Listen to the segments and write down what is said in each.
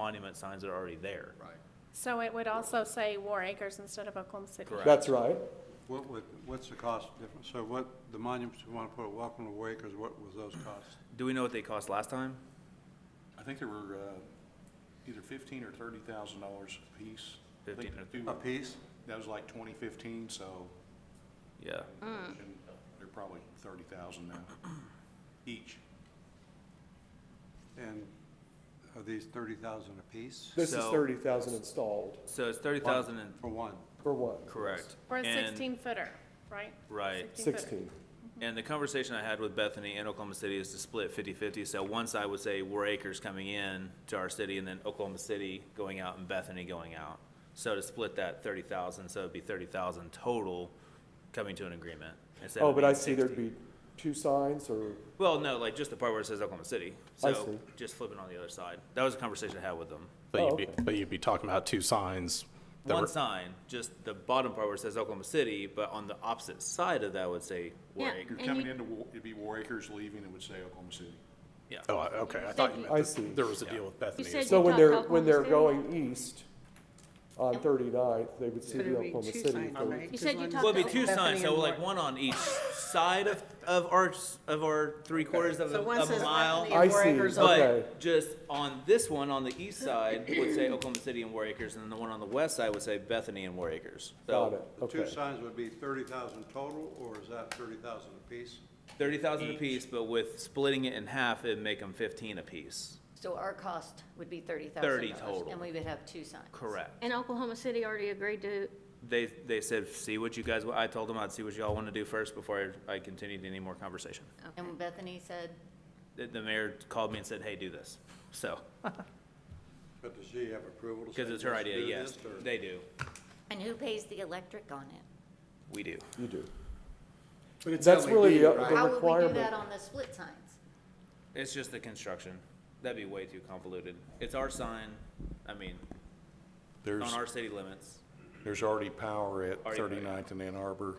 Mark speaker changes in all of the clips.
Speaker 1: monument signs that are already there.
Speaker 2: Right.
Speaker 3: So it would also say War Acres instead of Oklahoma City.
Speaker 1: Correct.
Speaker 4: That's right.
Speaker 5: What would, what's the cost difference? So what, the monuments you want to put at Welcome to Wakers, what was those costs?
Speaker 1: Do we know what they cost last time?
Speaker 2: I think there were uh, either fifteen or thirty thousand dollars apiece. I think
Speaker 1: 15 or-
Speaker 2: the two-
Speaker 5: A piece?
Speaker 2: That was like twenty fifteen, so
Speaker 1: Yeah.
Speaker 6: Mm.
Speaker 2: and they're probably thirty thousand now each.
Speaker 5: And are these thirty thousand a piece
Speaker 4: This is
Speaker 1: So-
Speaker 4: thirty thousand installed
Speaker 1: So it's thirty thousand and,
Speaker 5: for one?
Speaker 4: for one.
Speaker 1: correct.
Speaker 3: Or a
Speaker 1: And-
Speaker 3: sixteen footer, right?
Speaker 1: Right.
Speaker 3: 16 footer.
Speaker 4: Sixteen.
Speaker 1: And the conversation I had with Bethany and Oklahoma City is to split 50-50. So one side would say War Acres coming in to our city and then Oklahoma City going out and Bethany going out. So to split that thirty thousand, so it'd be thirty thousand total coming to an agreement. instead
Speaker 4: Oh,
Speaker 1: of
Speaker 4: but I
Speaker 1: being
Speaker 4: see there'd
Speaker 1: 60.
Speaker 4: be two signs or,
Speaker 1: Well, no, like just the part where it says Oklahoma City.
Speaker 4: I
Speaker 1: So
Speaker 4: see.
Speaker 1: just flipping on the other side. That was a conversation I had with them.
Speaker 7: But
Speaker 4: Oh,
Speaker 7: you'd be,
Speaker 4: okay.
Speaker 7: but you'd be talking about two signs. that
Speaker 1: One
Speaker 7: were-
Speaker 1: sign, just the bottom part where it says Oklahoma City, but on the opposite side of that would say War
Speaker 6: Yeah.
Speaker 1: Acres.
Speaker 2: You're
Speaker 6: And
Speaker 2: coming
Speaker 6: you-
Speaker 2: into, Wa- it'd be War Acres leaving, it would say Oklahoma City.
Speaker 1: Yeah.
Speaker 7: Oh, I- okay, I thought you
Speaker 4: I
Speaker 7: meant
Speaker 4: see.
Speaker 7: that there was a deal with Bethany. or
Speaker 6: said-
Speaker 4: so when
Speaker 6: talk
Speaker 4: they're,
Speaker 6: Oklahoma
Speaker 4: when they're
Speaker 6: City?
Speaker 4: going east on 39th, they would see
Speaker 8: But
Speaker 4: the
Speaker 8: it'd be
Speaker 4: Oklahoma
Speaker 8: two
Speaker 4: City.
Speaker 8: signs,
Speaker 4: thing.
Speaker 8: right?
Speaker 6: You said you
Speaker 8: Because
Speaker 6: talked
Speaker 1: Well, it'd
Speaker 6: to
Speaker 1: be two
Speaker 8: Bethany
Speaker 1: signs, so
Speaker 8: and
Speaker 1: like
Speaker 8: Warren.
Speaker 1: one on each side of, of our, s- of our three quarters of a
Speaker 8: So one
Speaker 1: of a
Speaker 8: says
Speaker 1: mile.
Speaker 8: Bethany
Speaker 4: I
Speaker 8: and War
Speaker 4: see.
Speaker 8: Acres
Speaker 4: But-
Speaker 8: Oak.
Speaker 4: Okay.
Speaker 1: But just on this one, on the east side, would say Oklahoma City and War Acres, and then the one on the west side would say Bethany and War Acres.
Speaker 4: Got it,
Speaker 5: The two
Speaker 4: okay.
Speaker 5: signs would be thirty thousand total, or is that thirty thousand a piece?
Speaker 1: Thirty thousand apiece, but with splitting it in half, it'd make them fifteen apiece.
Speaker 6: So our cost would be thirty thousand.
Speaker 1: 30 total.
Speaker 6: And we would have two signs.
Speaker 1: Correct.
Speaker 6: And Oklahoma City already agreed to,
Speaker 1: They, they said, see what you guys, wa-" I told them I'd see what y'all want to do first before I I continued any more conversation.
Speaker 6: and Bethany said,
Speaker 1: The, the mayor called me and said, hey, do this. So,
Speaker 5: But does she have approval to say?
Speaker 1: because it's her
Speaker 5: yes,
Speaker 1: idea,
Speaker 5: do
Speaker 1: yes,
Speaker 5: this, or-
Speaker 1: they do,
Speaker 6: and who pays the electric on it?
Speaker 1: we do.
Speaker 4: You do.
Speaker 2: But it's
Speaker 4: That's really the
Speaker 6: How
Speaker 4: the
Speaker 6: would we do that
Speaker 4: requirement.
Speaker 6: on the split signs?
Speaker 1: It's just the construction. That'd be way too convoluted. It's our sign, I mean, on
Speaker 2: There's,
Speaker 1: our city limits.
Speaker 2: there's already power at
Speaker 1: Already power, yeah.
Speaker 2: 39th and Ann Arbor.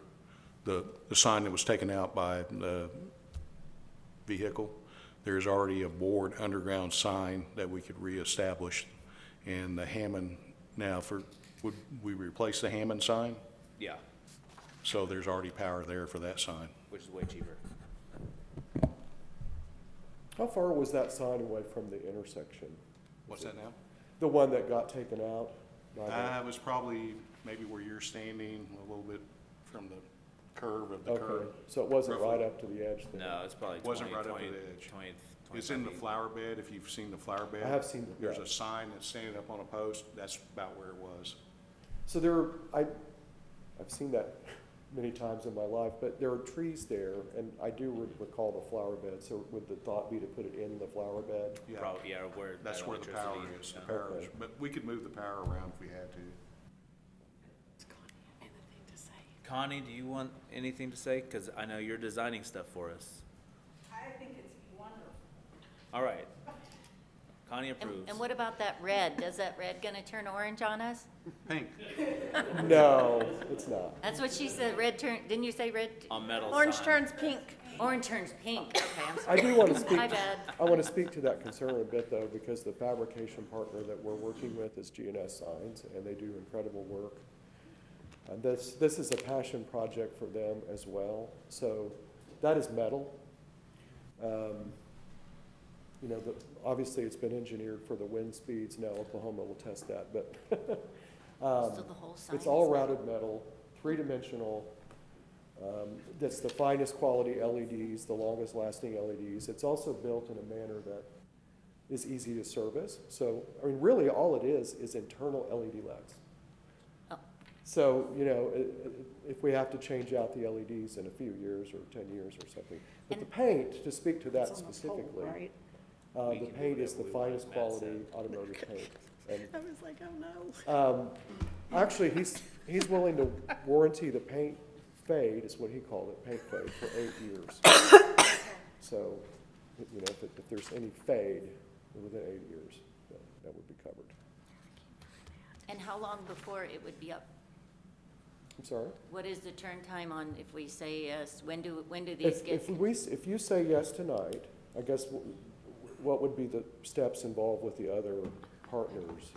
Speaker 2: The, the sign that was taken out by the vehicle, there's already a board underground sign that we could reestablish. And the Hammond, now for, would we replace the Hammond sign?
Speaker 1: Yeah,
Speaker 2: So there's already power there for that sign.
Speaker 1: which is way cheaper.
Speaker 4: How far was that sign away from the intersection?
Speaker 2: What's that now?
Speaker 4: The one that got taken out? by the-
Speaker 2: Uh, it was probably maybe where you're standing, a little bit from the curve of the
Speaker 4: Okay,
Speaker 2: curve.
Speaker 4: so it wasn't
Speaker 2: roughly.
Speaker 4: right up to the edge there?
Speaker 1: No, it's probably
Speaker 2: Wasn't
Speaker 1: twenty,
Speaker 2: right up to
Speaker 1: twenty,
Speaker 2: the edge.
Speaker 1: twenty.
Speaker 2: It's in the
Speaker 1: 25 feet.
Speaker 2: flower bed, if you've seen the flower bed.
Speaker 4: have seen the-
Speaker 2: There's
Speaker 4: yeah.
Speaker 2: a sign that's standing up on a post, that's about where it was.
Speaker 4: So there, are, I, I've seen that many times in my life, but there are trees there, and I do re- recall the flower bed, so would the thought be to put it in the flower bed?
Speaker 2: Yeah,
Speaker 1: Probably, yeah, where. that
Speaker 2: That's where the power
Speaker 1: electricity-
Speaker 2: is, the
Speaker 1: yeah.
Speaker 2: power is,
Speaker 4: Okay.
Speaker 2: but we could move the power around if we had to.
Speaker 1: Connie, do you want anything to say? Because I know you're designing stuff for us.
Speaker 9: I think it's wonderful.
Speaker 1: All right. Connie
Speaker 6: And,
Speaker 1: approves.
Speaker 6: and what about that red? Does that red gonna turn orange on us?
Speaker 5: Pink,
Speaker 4: No, it's not.
Speaker 6: That's what she said, red turn, didn't you say red?
Speaker 1: On metal
Speaker 3: Orange
Speaker 1: sign.
Speaker 3: turns pink.
Speaker 6: Orange turns pink, okay, I'm sorry.
Speaker 4: I do want to speak,
Speaker 6: My bad.
Speaker 4: I want to speak to that concern a bit, though, because the fabrication partner that we're working with is GNS Signs, and they do incredible work. And this, this is a passion project for them as well, so that is metal. Um, You know, the, obviously, it's been engineered for the wind speeds, now Oklahoma will test that, but
Speaker 6: So the whole sign
Speaker 4: um, it's
Speaker 6: is
Speaker 4: all
Speaker 6: red.
Speaker 4: routed metal, three-dimensional. um, That's the finest quality LEDs, the longest lasting LEDs. It's also built in a manner that is easy to service. So, I mean, really, all it is, is internal LED lights.
Speaker 6: Oh.
Speaker 4: So, you know, i- i- if we have to change out the LEDs in a few years or 10 years or something. But the paint, to speak to that
Speaker 8: It's on the pole,
Speaker 4: specifically,
Speaker 8: right?
Speaker 4: uh,
Speaker 1: We
Speaker 4: the
Speaker 1: can do
Speaker 4: paint is
Speaker 1: whatever
Speaker 4: the
Speaker 1: we want, as Matt
Speaker 4: finest
Speaker 1: said.
Speaker 4: quality automotive paint. And
Speaker 8: I was like, oh no.
Speaker 4: um, Actually, he's, he's willing to warranty the paint fade, is what he called it, paint fade, for eight years. So, you know, if, it- if there's any fade within eight years, that, that would be covered.
Speaker 6: And how long before it would be up?
Speaker 4: I'm sorry?
Speaker 6: What is the turn time on if we say yes? When do, when do these
Speaker 4: If,
Speaker 6: get?
Speaker 4: if we, s- if you say yes tonight, I guess w- what would be the steps involved with the other partners